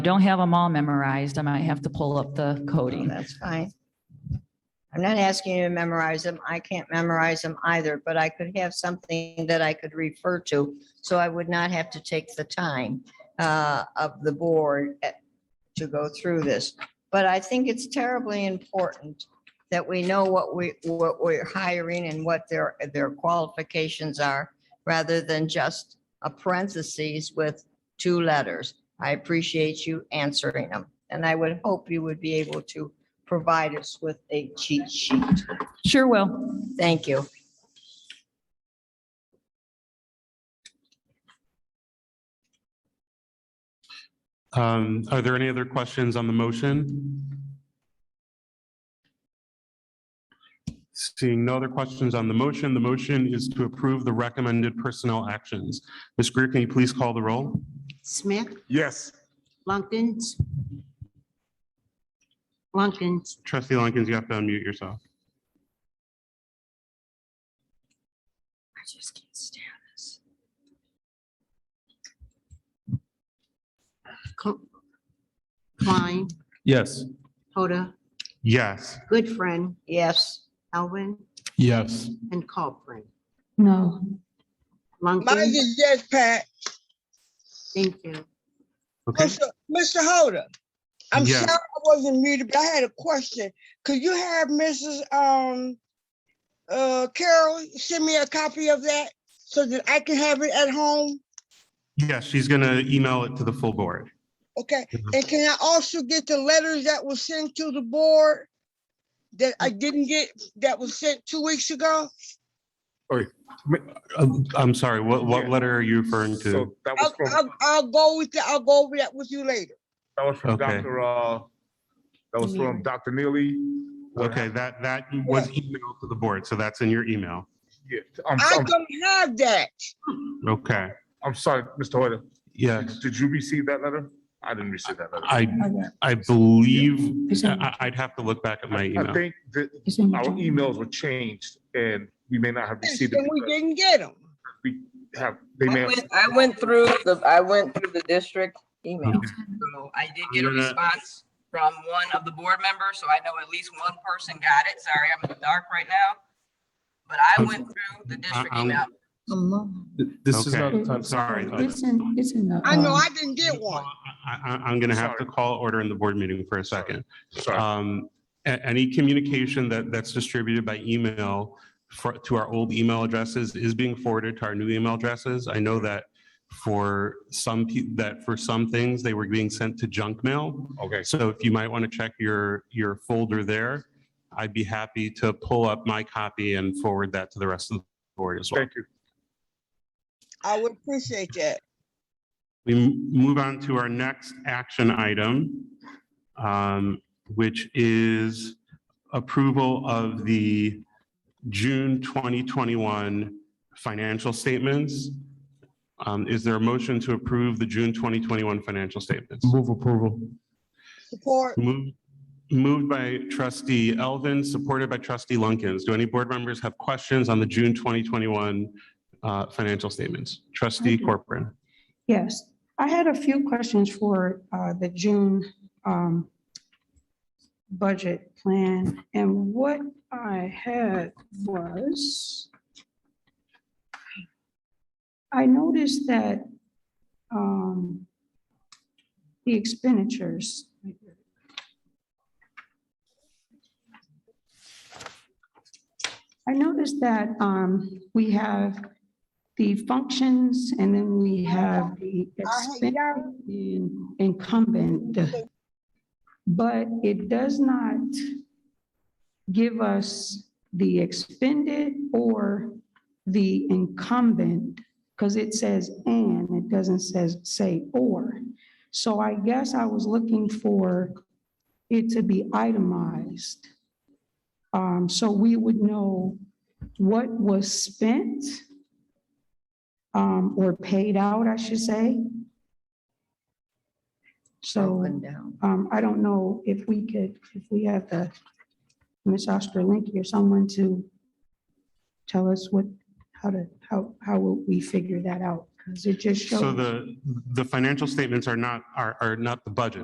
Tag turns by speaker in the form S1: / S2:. S1: Don't have them all memorized. I might have to pull up the
S2: Oh,
S1: coding.
S2: That's fine. I'm not asking you to memorize them. I can't memorize them either, but I could have something that I could refer to. So I would not have to take the time uh, of the board eh, to go through this. But I think it's terribly important that we know what we, what we're hiring and what their, their qualifications are, rather than just a parentheses with two letters. I appreciate you answering them. And I would hope you would be able to provide us with a cheat sheet.
S1: Sure will.
S2: Thank you.
S3: Um, Are there any other questions on the motion? Seeing no other questions on the motion, the motion is to approve the recommended personnel actions. Ms. Greer, can you please call the roll?
S4: Smith,
S5: Yes.
S4: Lunkins. Lunkins,
S3: Trustee Lunkins, you have to unmute yourself.
S2: I just can't stand this.
S4: Co- Klein,
S5: Yes.
S4: Hoda,
S3: Yes.
S4: Goodfriend,
S2: Yes,
S4: Elwin,
S5: Yes.
S4: and Copeland.
S1: No.
S6: Mine
S4: Lunkins,
S6: is yes, Pat.
S4: thank you.
S3: Okay,
S6: Mr. Mr. Holder, I'm
S3: Yeah.
S6: sorry I wasn't muted, but I had a question. Could you have Mrs. Um, uh, Carol send me a copy of that so that I can have it at home?
S3: yes, she's going to email it to the full board.
S6: Okay,
S3: Mhm.
S6: and can I also get the letters that was sent to the board that I didn't get, that was sent two weeks ago?
S3: Um, I'm sorry, what, what letter are you referring to?
S7: So that was
S6: I'll,
S7: from,
S6: I'll, I'll go with, the- I'll go over that with you later.
S7: that was from
S3: Okay.
S7: Dr. Uh, that was from Dr. Neely. What
S3: Okay,
S7: happened-
S3: that, that was emailed to the board, so that's in your email.
S7: yeah, I'm,
S6: I
S7: I'm,
S6: don't have that.
S3: Okay,
S7: I'm sorry, Mr. Hoyt.
S3: yes.
S7: Did you receive that letter? I didn't receive that letter.
S3: I, I believe, I, I'd have to look back at my
S7: I
S3: email.
S7: think that our emails were changed and we may not have received it
S6: And we
S7: because
S6: didn't get them.
S7: we have, they may
S8: I
S7: have.
S8: went, I went through the, I went through the district email. So I did get a
S3: I'm gonna-
S8: response from one of the board members, so I know at least one person got it. Sorry, I'm in the dark right now. But I went through the district
S3: I'm-
S8: email.
S3: This is not the time. Sorry.
S6: I know I didn't get one.
S3: I, I, I'm gonna have to call order in the board meeting for a second.
S7: Sorry.
S3: Um, a- any communication that, that's distributed by email for, to our old email addresses is being forwarded to our new email addresses. I know that for some, peo- that for some things, they were being sent to junk mail.
S7: Okay.
S3: So if you might want to check your, your folder there, I'd be happy to pull up my copy and forward that to the rest of the board as well.
S7: Thank you.
S6: I would appreciate that.
S3: We m- move on to our next action item, um, which is approval of the June 2021 financial statements. Um, Is there a motion to approve the June 2021 financial statements?
S5: Move approval.
S6: Support.
S3: Moved moved by trustee Elvin, supported by trustee Lunkins. Do any board members have questions on the June 2021 uh, financial statements? Trustee Corcoran.
S9: Yes, I had a few questions for uh, the June um, budget plan, and what I had was I noticed that um, the expenditures I noticed that um, we have the functions and then we have the expen- in- incumbent. But it does not give us the expended or the incumbent, because it says and, it doesn't says, say or. So I guess I was looking for it to be itemized. Um, so we would know what was spent um, or paid out, I should say. So.
S2: Broken down.
S9: Um, I don't know if we could, if we have the, Ms. Ostrowinski or someone to tell us what, how to, how, how will we figure that out? because it just shows.
S3: So the, the financial statements are not, are, are not the budget.